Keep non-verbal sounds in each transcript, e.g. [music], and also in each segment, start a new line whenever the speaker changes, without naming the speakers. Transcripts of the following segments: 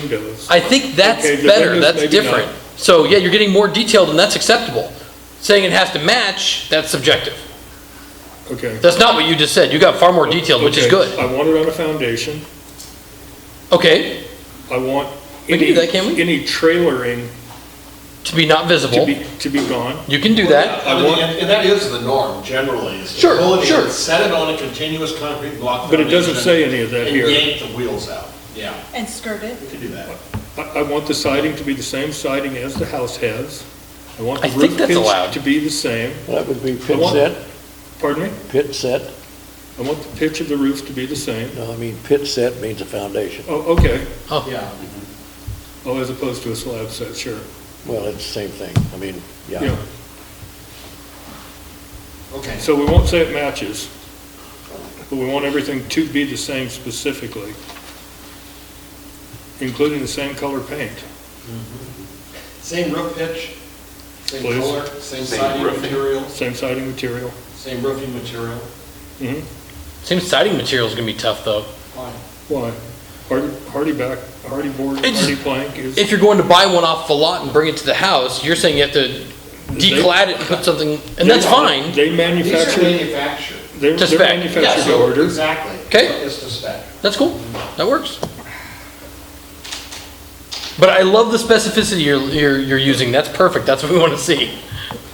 windows.
I think that's
Okay, the
better,
windows,
that's
maybe not.
different. So, yeah, you're getting more detailed and that's acceptable. Saying it has to match, that's subjective.
Okay.
That's not what you just said, you got far more detailed, which is
Okay,
good.
I want it on a foundation.
Okay,
I want
We can
any,
do that, can't we?
any trailering
to be not
to
visible,
be, to be gone.
you can do that.
I mean, and and that is the norm generally, is to
Sure,
pull it in,
sure.
set it on a continuous concrete block.
But it doesn't
foundation
say any of that here.
And yank the wheels out, yeah,
And skirt it.
we could do that.
I, I want the siding to be the same siding as the house has. I want the
I think
roof
that's allowed.
pitch to be the same.
That would be
I
pit
want-
set,
Pardon me?
pit set.
I want the pitch of the roof to be the same.
No, I mean, pit set means a foundation.
Oh, okay.
Yeah,
Oh, as opposed to a slab set, sure.
Well, it's the same thing. I mean, yeah.
Yeah.
okay.
So we won't say it matches, but we want everything to be the same specifically, including the same color paint.
Same roof pitch, same
Please.
color, same siding material,
Same siding material.
same roofing material,
Mhm.
Same siding material's gonna be tough, though.
fine.
Why? Hardy, hardy back, hardy board,
It's-
hardy plank is,
If you're going to buy one off the lot and bring it to the house, you're saying you have to declad it and put something, and that's fine.
they
These are
manufacture,
manufactured.
they're
To
they're
spec, yeah.
manufactured to
So,
order.
Exactly.
Okay.
It's to spec.
That's cool. That works. But I love the specificity you're, you're, you're using. That's perfect. That's what we want to see.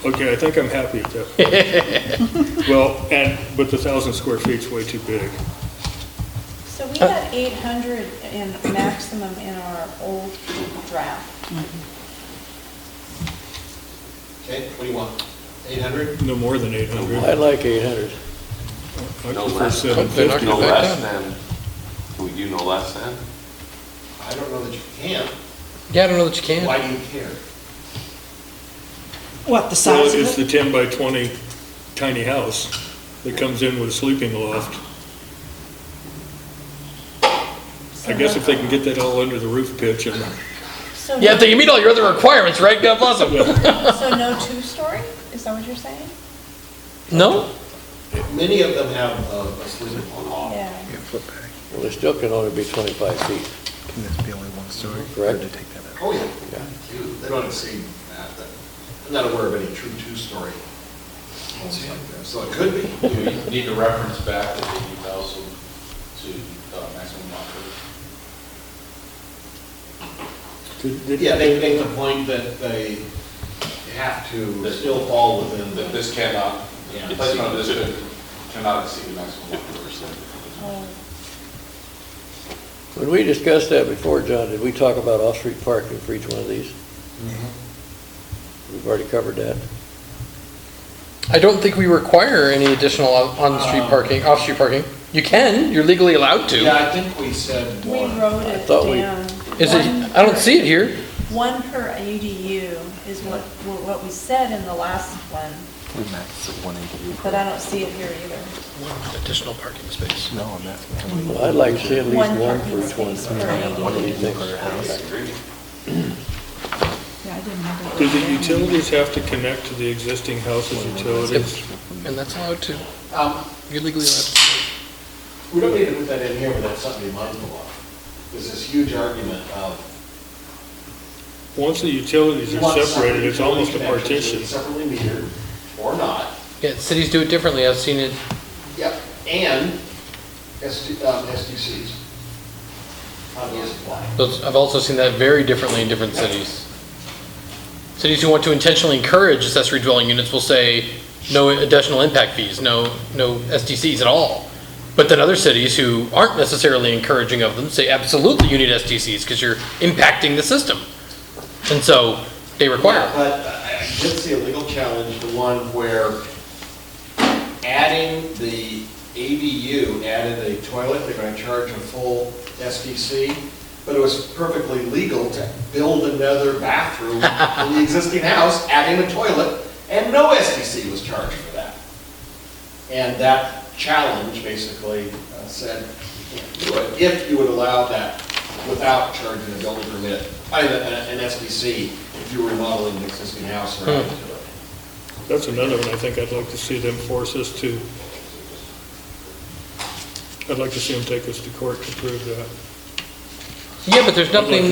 Okay, I think I'm happy at that.
[laughs]
Well, and, but the thousand square feet's way too big.
So we
Uh,
had 800 in maximum in our old draft.
Okay, what do you want? 800?
No more than eight
I
hundred.
like 800.
I
No
prefer
less.
seven fifty.
No less than, can we do no less than?
I don't know that you can.
Yeah, I don't know that you can.
Why do you care?
What, the
Well,
size
it's
of it?
the ten by twenty tiny house that comes in with a sleeping loft. I guess if they can get that all under the roof pitch and,
So
Yeah,
no-
if you meet all your other requirements, right? God bless them.
so no two-story? Is that what you're saying?
No?
Many of them have uh, a sleeping
Oh.
on off.
Yeah.
Yeah, flip back.
Well, it still can only be 25 feet.
Can this be only one story?
Correct.
Or did I take that out?
Oh, yeah. They don't exceed that. but I'm not aware of any true two-story homes like that, so it could be.
Do we need to reference back to the 8,000 to uh, maximum lot coverage?
Yeah, they make the point that they have to still fall within
That
the,
this cannot,
Yeah.
the placement of this cannot exceed the maximum lot coverage.
When we discussed that before, John, did we talk about off-street parking for each one of these? We've already covered that.
I don't think we require any additional on- on-street parking, off-street parking. You can, you're legally allowed to.
yeah, I think we said
We
one.
wrote
I
it
thought we-
down.
Is it,
One
I don't
per-
see it here.
One per ADU is what, what what we said in the last one,
We maxed at one eighty.
but I don't see it here either.
Additional parking space.
No, I'm asking.
Well, I'd like to see at least
One
one for
parking
each one.
space per
What do you
ADU.
think?
do the utilities have to connect to the existing house's utilities?
And that's allowed to.
Um,
You're legally allowed to.
We don't need to put that in here, but that's something to be mindful of. There's this huge argument of.
Once the utilities
you
are
want
separated, it's
separate
almost a
utility connections,
partition.
Separately metered or not.
Yeah, cities do it differently. I've seen it.
Yep. And SD um, SDCs. How those apply.
Those, I've also seen that very differently in different cities. Cities who want to intentionally encourage accessory dwelling units will say, no additional impact fees, no, no SDCs at all. But then other cities who aren't necessarily encouraging of them say, absolutely, you need SDCs because you're impacting the system. And so they require.
Yeah,
them.
But I I did see a legal challenge, the one where adding the ADU added a toilet, they're gonna charge a full SDC, but it was perfectly legal to build another bathroom in the existing house, adding a toilet, and no SDC was charged for that. And that challenge basically uh, said, you can't do it, if you would allow that without charging a building permit, I mean, an an SBC, if you were remodeling an existing house or adding to it.
That's another one I think I'd like to see them force us to. I'd like to see them take us to court to prove that.
Yeah, but there's nothing